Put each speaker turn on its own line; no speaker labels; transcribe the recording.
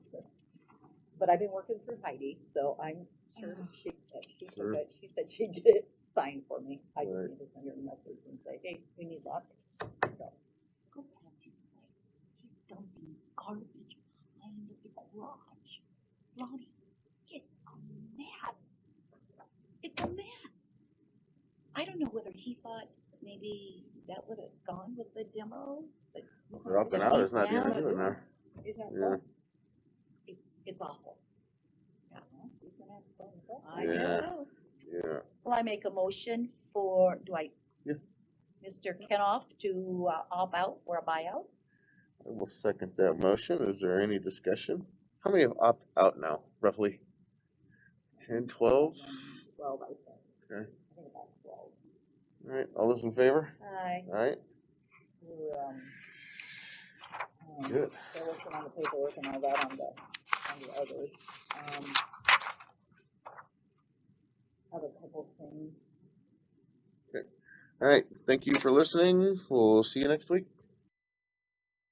but I've been working through Heidi, so I'm sure
Oh.
she, that she said
Sure.
that, she said she'd get it signed for me. I just
Right.
need to send her a message and say, hey, we need lots. So,
Go past his place. He's dumping garbage behind the garage. Ronnie, it's a mess. It's a mess. I don't know whether he thought maybe that would have gone with the demo, but.
They're up and out, it's not even doing that.
is that
Yeah.
fun?
It's, it's awful.
Is that fun? Fun?
I guess
Yeah.
so.
Yeah,
Well, I make a motion for, do I?
Yeah.
Mr. Kenoff to uh, opt out or a buyout?
I will second that motion. Is there any discussion? How many have opt out now, roughly? Ten, twelve?
Twelve, I think.
Okay.
I think about twelve.
Alright, all those in favor?
Aye.
Alright,
We were, um, um,
good.
They're working on the paperwork and all that on the, on the others, um. Have a couple things.
Alright, thank you for listening. We'll see you next week.